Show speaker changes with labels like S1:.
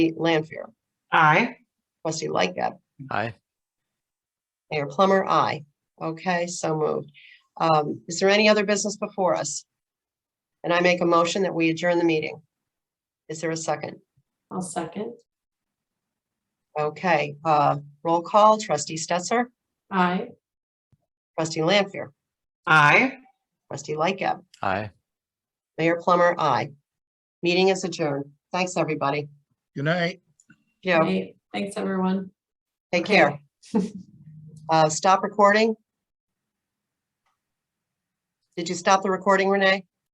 S1: Lanfair.
S2: Aye.
S1: Trustee Lightgab.
S3: Aye.
S1: Mayor Plummer, aye. Okay, so moved. Um, Is there any other business before us? And I make a motion that we adjourn the meeting. Is there a second?
S4: I'll second.
S1: Okay, uh, roll call, trustee Stetser,
S4: Aye.
S1: trustee Lampier,
S2: Aye.
S1: trustee Lightgab,
S3: Aye.
S1: Mayor Plummer, aye. Meeting is adjourned. Thanks, everybody.
S5: Good night.
S1: Joe,
S4: Great. Thanks, everyone.
S1: take care. Uh, Stop recording. Did you stop the recording, Renee?